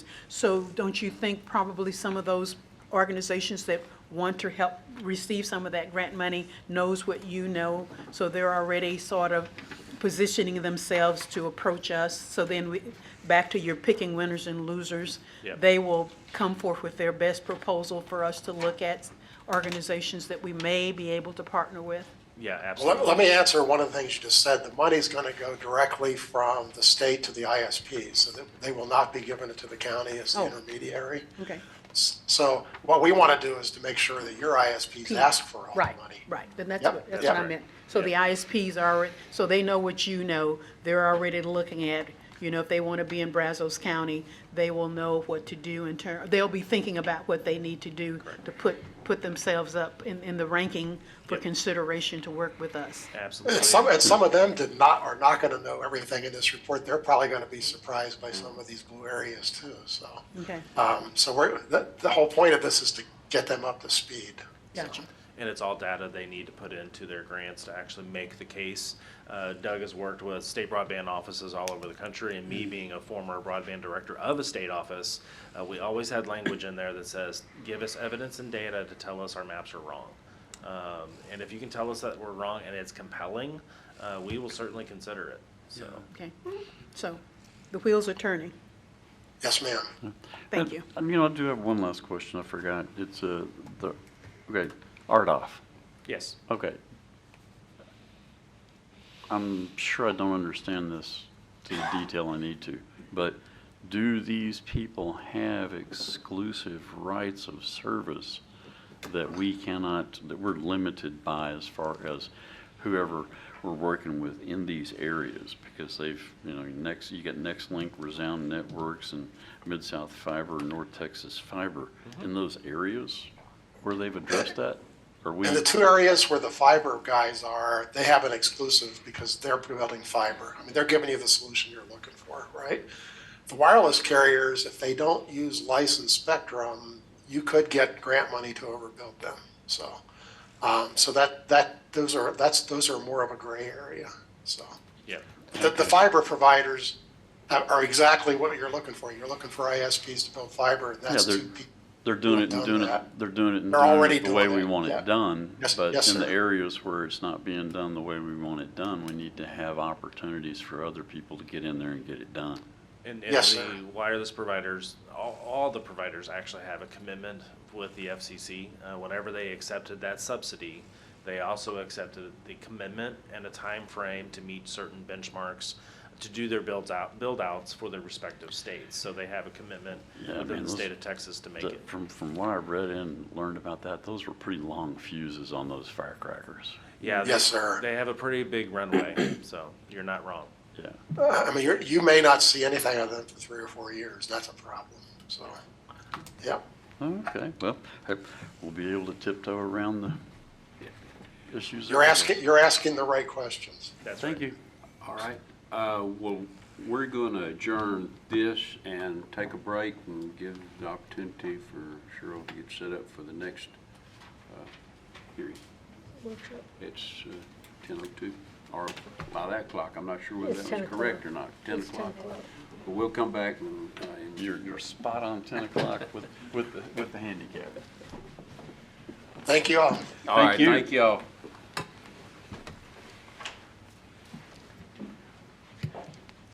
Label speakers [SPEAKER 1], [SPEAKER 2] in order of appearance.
[SPEAKER 1] So don't you think probably some of those organizations that want to help receive some of that grant money knows what you know? So they're already sort of positioning themselves to approach us. So then we, back to your picking winners and losers.
[SPEAKER 2] Yep.
[SPEAKER 1] They will come forth with their best proposal for us to look at organizations that we may be able to partner with.
[SPEAKER 2] Yeah,
[SPEAKER 3] Let,
[SPEAKER 2] absolutely.
[SPEAKER 3] let me answer one of the things you just said. The money's gonna go directly from the state to the ISPs, so that they will not be giving it to the county as the
[SPEAKER 1] Oh.
[SPEAKER 3] intermediary.
[SPEAKER 1] Okay.
[SPEAKER 3] S- So what we wanna do is to make sure that your ISPs ask for all the
[SPEAKER 1] Right,
[SPEAKER 3] money.
[SPEAKER 1] right, then that's
[SPEAKER 3] Yep,
[SPEAKER 1] what, that's
[SPEAKER 3] yep.
[SPEAKER 1] what I meant. So the ISPs are, alre- so they know what you know, they're already looking at, you know, if they want to be in Brazos County, they will know what to do in turn, they'll be thinking about what they need to do to put, put themselves up in, in the ranking for
[SPEAKER 2] Yep.
[SPEAKER 1] consideration to work with us.
[SPEAKER 2] Absolutely.
[SPEAKER 3] And some, and some of them did not, are not gonna know everything in this report. They're probably gonna be surprised by some of these blue areas too, so.
[SPEAKER 1] Okay,
[SPEAKER 3] Um, so we're, the, the whole point of this is to get them up to speed.
[SPEAKER 1] gotcha.
[SPEAKER 2] and it's all data they need to put into their grants to actually make the case. Uh, Doug has worked with state broadband offices all over the country, and
[SPEAKER 3] Mm-hmm.
[SPEAKER 2] me being a former broadband director of a state office, uh, we always had language in there that says, give us evidence and data to tell us our maps are wrong. Um, and if you can tell us that we're wrong and it's compelling, uh, we will certainly consider it, so.
[SPEAKER 1] Okay, so the wheels are turning,
[SPEAKER 3] Yes, ma'am.
[SPEAKER 1] thank you.
[SPEAKER 4] Um, You know, I do have one last question I forgot. It's uh, the, okay, RDOF.
[SPEAKER 2] Yes,
[SPEAKER 4] Okay. I'm sure I don't understand this to the detail I need to, but do these people have exclusive rights of service that we cannot, that we're limited by as far as whoever we're working with in these areas? Because they've, you know, next, you got Nextlink, Resound Networks, and Mid-South Fiber, North Texas Fiber.
[SPEAKER 3] Mm-hmm.
[SPEAKER 4] In those areas where they've addressed that? Are we?
[SPEAKER 3] And the two areas where the fiber guys are, they have an exclusive because they're building fiber. I mean, they're giving you the solution you're looking for, right? The wireless carriers, if they don't use licensed spectrum, you could get grant money to overbuild them. So, um, so that, that, those are, that's, those are more of a gray area, so.
[SPEAKER 2] yeah,
[SPEAKER 3] The, the fiber providers are are exactly what you're looking for. You're looking for ISPs to build fiber, and that's
[SPEAKER 4] Yeah,
[SPEAKER 3] two
[SPEAKER 4] they're-
[SPEAKER 3] people.
[SPEAKER 4] They're doing it and
[SPEAKER 3] Done
[SPEAKER 4] doing it,
[SPEAKER 3] that.
[SPEAKER 4] they're doing it and
[SPEAKER 3] They're
[SPEAKER 4] doing
[SPEAKER 3] already
[SPEAKER 4] it the way
[SPEAKER 3] doing
[SPEAKER 4] we
[SPEAKER 3] it,
[SPEAKER 4] want
[SPEAKER 3] yeah.
[SPEAKER 4] it done.
[SPEAKER 3] Yes-
[SPEAKER 4] But
[SPEAKER 3] yes,
[SPEAKER 4] in the
[SPEAKER 3] sir.
[SPEAKER 4] areas where it's not being done the way we want it done, we need to have opportunities for other people to get in there and get it done.
[SPEAKER 2] And, and
[SPEAKER 3] Yes,
[SPEAKER 2] the
[SPEAKER 3] sir.
[SPEAKER 2] wireless providers, all, all the providers actually have a commitment with the FCC. Uh, whenever they accepted that subsidy, they also accepted the commitment and a time frame to meet certain benchmarks to do their builds out, build outs for their respective states. So they have a commitment
[SPEAKER 4] Yeah, I
[SPEAKER 2] within
[SPEAKER 4] mean,
[SPEAKER 2] the
[SPEAKER 4] those-
[SPEAKER 2] state of Texas to make
[SPEAKER 4] That-
[SPEAKER 2] it.
[SPEAKER 4] From, from what I've read and learned about that, those were pretty long fuses on those firecrackers.
[SPEAKER 2] Yeah.
[SPEAKER 3] Yes,
[SPEAKER 2] they-
[SPEAKER 3] sir.
[SPEAKER 2] They have a pretty big runway, so you're not wrong.
[SPEAKER 4] Yeah.
[SPEAKER 3] I mean, you're, you may not see anything of them for three or four years. That's a problem. So, yeah.
[SPEAKER 4] Okay, well, I- we'll be able to tiptoe around the issues.
[SPEAKER 3] You're
[SPEAKER 4] there.
[SPEAKER 3] asking, you're asking the right questions.
[SPEAKER 2] That's right.
[SPEAKER 4] Thank you.
[SPEAKER 5] All right, uh, well, we're going to adjourn this and take a break and give the opportunity for Cheryl to get set up for the next uh, hearing. It's uh, 10:02, or by that clock, I'm not sure whether
[SPEAKER 6] It's
[SPEAKER 5] that
[SPEAKER 6] 10
[SPEAKER 5] was
[SPEAKER 6] o'clock.
[SPEAKER 5] correct or not, 10
[SPEAKER 6] It's 10
[SPEAKER 5] o'clock.
[SPEAKER 6] o'clock.
[SPEAKER 5] But we'll come back and, uh, and
[SPEAKER 4] You're, you're spot on 10 o'clock with, with, the- with the handicap.
[SPEAKER 3] Thank you all.
[SPEAKER 5] All right,
[SPEAKER 4] you.
[SPEAKER 5] thank y'all.